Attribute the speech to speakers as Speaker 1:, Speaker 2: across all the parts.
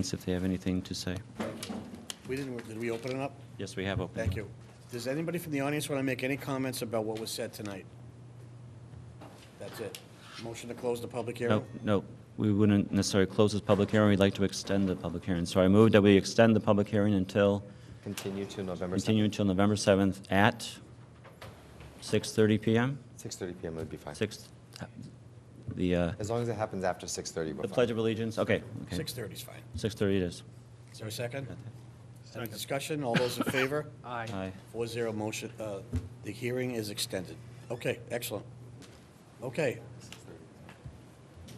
Speaker 1: if they have anything to say.
Speaker 2: We didn't, did we open it up?
Speaker 1: Yes, we have opened.
Speaker 2: Thank you. Does anybody from the audience want to make any comments about what was said tonight? That's it. Motion to close the public
Speaker 1: No,
Speaker 2: hearing?
Speaker 1: no, we wouldn't necessarily close this public hearing, we'd like to extend the public hearing. So I move that we extend the public hearing until,
Speaker 3: Continue to November
Speaker 1: continue
Speaker 3: 7th.
Speaker 1: until November 7th at 6:30 PM?
Speaker 3: 6:30 PM would be fine.
Speaker 1: 6, the, uh,
Speaker 3: As long as it happens after 6:30, we're
Speaker 1: the
Speaker 3: fine.
Speaker 1: Pledge of Allegiance, okay, okay.
Speaker 2: 6:30 is fine.
Speaker 1: 6:30 it is.
Speaker 2: Is there a second? Any discussion? All those in favor?
Speaker 1: Aye.
Speaker 2: Four zero motion, uh, the hearing is extended. Okay, excellent. Okay.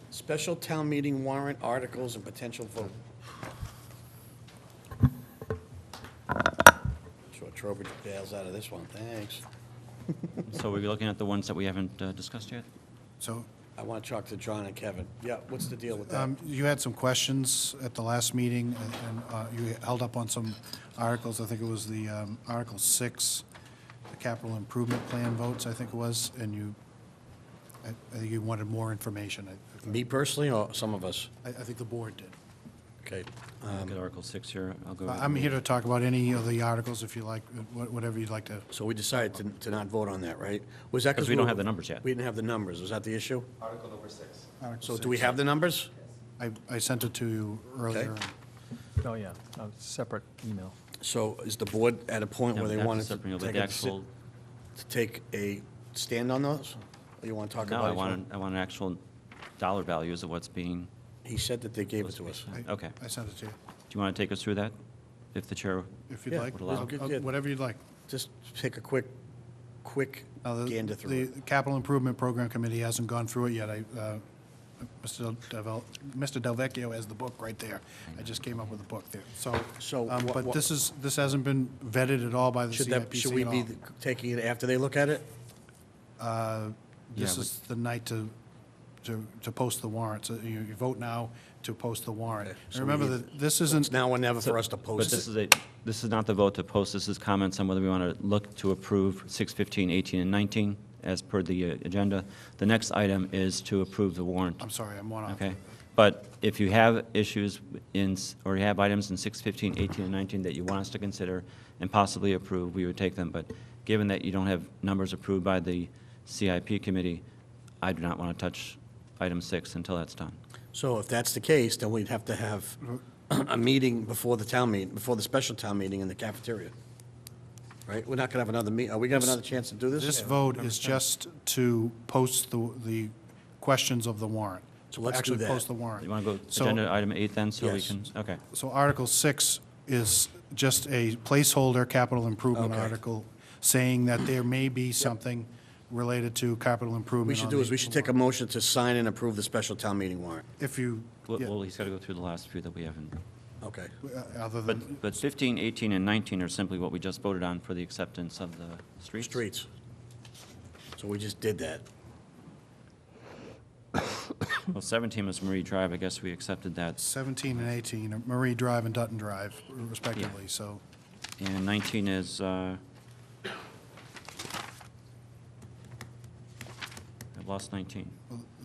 Speaker 2: Special town meeting warrant articles and potential vote. Sure Trowbridge bails out of this one, thanks.
Speaker 1: So we're looking at the ones that we haven't uh, discussed yet?
Speaker 4: So
Speaker 2: I want to talk to John and Kevin. Yeah, what's the deal with that?
Speaker 4: um, you had some questions at the last meeting, and- and uh, you held up on some articles. I think it was the um, Article 6, the capital improvement plan votes, I think it was, and you, I I think you wanted more information. I-
Speaker 2: Me personally or some of us?
Speaker 4: I I think the board did.
Speaker 2: Okay.
Speaker 1: Look at Article 6 here, I'll go.
Speaker 4: I-
Speaker 1: over
Speaker 4: I'm
Speaker 1: the-
Speaker 4: here to talk about any of the articles, if you like, wha- whatever you'd like to.
Speaker 2: So we decided to, to not vote on that, right? Was that
Speaker 1: 'Cause we don't
Speaker 2: were-
Speaker 1: have the numbers yet.
Speaker 2: We didn't have the numbers, was that the issue?
Speaker 3: Article number six.
Speaker 4: Article
Speaker 2: So do we
Speaker 4: 6.
Speaker 2: have the numbers?
Speaker 4: I I sent it to you earlier.
Speaker 5: Oh, yeah, a separate email.
Speaker 2: So is the board at a point
Speaker 1: Yeah, but
Speaker 2: where they
Speaker 1: that's a
Speaker 2: want to
Speaker 1: separate- but
Speaker 2: take
Speaker 1: the
Speaker 2: a, si-
Speaker 1: actual-
Speaker 2: to take a stand on those? Or you want to talk
Speaker 1: No,
Speaker 2: about?
Speaker 1: I
Speaker 2: each
Speaker 1: want,
Speaker 2: one?
Speaker 1: I want actual dollar values of what's being,
Speaker 2: He said that they gave it to us.
Speaker 4: I-
Speaker 1: okay.
Speaker 4: I sent it to you,
Speaker 1: do you want to take us through that, if the chair
Speaker 4: if you'd
Speaker 2: Yeah,
Speaker 4: like.
Speaker 1: would allow.
Speaker 4: I'll-
Speaker 2: Good,
Speaker 4: I'll-
Speaker 2: good.
Speaker 4: Whatever you'd like.
Speaker 2: Just take a quick, quick
Speaker 4: Now, the-
Speaker 2: gander through it.
Speaker 4: The Capital Improvement Program Committee hasn't gone through it yet. I, uh, Mr. Del- Mr. Delvecchio has the book right there. I just came up with the book there. So,
Speaker 2: So
Speaker 4: um,
Speaker 2: what-
Speaker 4: but
Speaker 2: what-
Speaker 4: this is, this hasn't been vetted at all by the
Speaker 2: Should that, should
Speaker 4: CIPC
Speaker 2: we
Speaker 4: at
Speaker 2: be
Speaker 4: all.
Speaker 2: taking it after they look at it?
Speaker 4: This
Speaker 1: Yeah,
Speaker 4: is the night to, to, to post the warrant. So you you vote now to post the warrant.
Speaker 2: so
Speaker 4: And
Speaker 2: we
Speaker 4: remember
Speaker 2: need-
Speaker 4: that this
Speaker 2: It's
Speaker 4: isn't,
Speaker 2: now or never for us to
Speaker 1: But
Speaker 2: post
Speaker 1: this
Speaker 2: it.
Speaker 1: is a, this is not the vote to post, this is comments on whether we want to look to approve 6, 15, 18, and 19 as per the uh, agenda. The next item is to approve the warrant,
Speaker 4: I'm sorry, I'm one off.
Speaker 1: okay? But if you have issues in, s- or you have items in 6, 15, 18, and 19 that you want us to consider and possibly approve, we would take them. But given that you don't have numbers approved by the CIP committee, I do not want to touch item 6 until that's done.
Speaker 2: So if that's the case, then we'd have to have
Speaker 4: Mm-hmm.
Speaker 2: a meeting before the town meeting, before the special town meeting in the cafeteria. Right? We're not gonna have another meet, are we gonna have another chance to do this?
Speaker 4: This vote is just to post the, the questions of the warrant.
Speaker 2: So let's do
Speaker 4: Actually
Speaker 2: that.
Speaker 4: post the warrant.
Speaker 1: You want to go
Speaker 4: So-
Speaker 1: agenda item 8 then, so we
Speaker 2: Yes.
Speaker 1: can, okay.
Speaker 4: So Article 6 is just a placeholder capital improvement
Speaker 2: Okay.
Speaker 4: article, saying that there may be something related to capital improvement.
Speaker 2: We should
Speaker 4: on
Speaker 2: do
Speaker 4: the-
Speaker 2: is, we should take a motion to sign and approve the special town meeting warrant.
Speaker 4: If you,
Speaker 1: Well-
Speaker 4: yeah,
Speaker 1: Well, he's got to go through the last few that we haven't.
Speaker 2: Okay.
Speaker 4: uh, other than,
Speaker 1: But, but 15, 18, and 19 are simply what we just voted on for the acceptance of the streets.
Speaker 2: Streets. So we just did that.
Speaker 1: Well, 17 was Marie Drive, I guess we accepted that.
Speaker 4: 17 and 18, Marie Drive and Dutton Drive respectively, so
Speaker 1: And 19 is, uh, I've lost 19.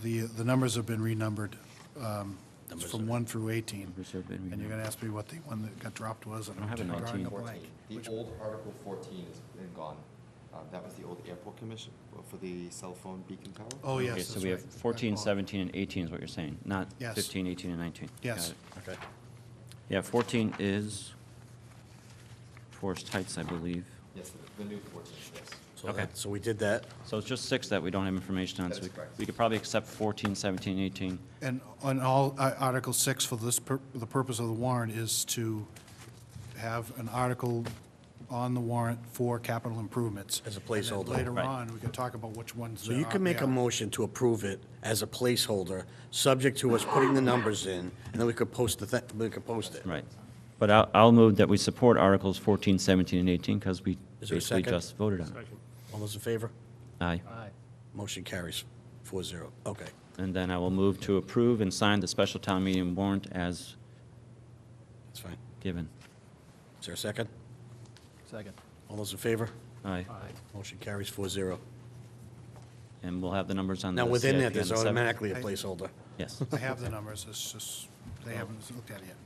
Speaker 4: the, uh, the numbers have been renumbered um,
Speaker 2: Numbers
Speaker 4: from
Speaker 2: have-
Speaker 4: 1 through 18.
Speaker 1: Numbers have been
Speaker 4: And you're going to ask me what the one that got dropped was. and
Speaker 1: I don't have a
Speaker 4: I'm drawing
Speaker 1: 19.
Speaker 4: blank.
Speaker 3: The old Article 14 is been gone. Uh, That was the old airport commission uh, for the cell phone beacon tower.
Speaker 4: Oh, yes,
Speaker 1: Okay,
Speaker 4: that's
Speaker 1: so we have
Speaker 4: right. I
Speaker 1: 14,
Speaker 4: apologize.
Speaker 1: 17, and 18 is what you're saying, not
Speaker 4: Yes.
Speaker 1: 15, 18, and 19. Got
Speaker 4: Yes.
Speaker 1: it.
Speaker 2: Okay.
Speaker 1: Yeah, 14 is Forest Heights, I believe.
Speaker 3: Yes, the- the new 14, yes.
Speaker 2: So
Speaker 1: Okay.
Speaker 2: that, so we did that.
Speaker 1: So it's just six that we don't have information on.
Speaker 3: That
Speaker 1: so
Speaker 3: is
Speaker 1: we-
Speaker 3: correct.
Speaker 1: We could probably accept 14, 17, 18.
Speaker 4: And on all, uh, Article 6 for this, pur- the purpose of the warrant is to have an article on the warrant for capital improvements.
Speaker 2: As a placeholder.
Speaker 4: And then Later
Speaker 1: Right.
Speaker 4: on, we can talk about which ones.
Speaker 2: So you can make a
Speaker 4: motion.
Speaker 2: motion to approve it as a placeholder, subject to us putting the numbers in, and then we could post the, thi- we could post it.
Speaker 1: Right. But I'll, I'll move that we support Articles 14, 17, and 18, because we
Speaker 2: Is there a
Speaker 1: basically
Speaker 2: second?
Speaker 1: just voted on it.
Speaker 2: All those in favor?
Speaker 1: Aye.
Speaker 5: Aye.
Speaker 2: Motion carries four zero. Okay.
Speaker 1: And then I will move to approve and sign the special town meeting warrant as
Speaker 2: That's fine.
Speaker 1: given.
Speaker 2: Is there a second?
Speaker 5: Second.
Speaker 2: All those in favor?
Speaker 1: Aye.
Speaker 2: Motion carries four zero.
Speaker 1: And we'll have the numbers on the
Speaker 2: Now, within
Speaker 1: CIP
Speaker 2: that,
Speaker 1: on
Speaker 2: there's
Speaker 1: the seventh.
Speaker 2: automatically a placeholder.
Speaker 1: Yes.
Speaker 4: I have the numbers, it's just, they haven't looked at it yet.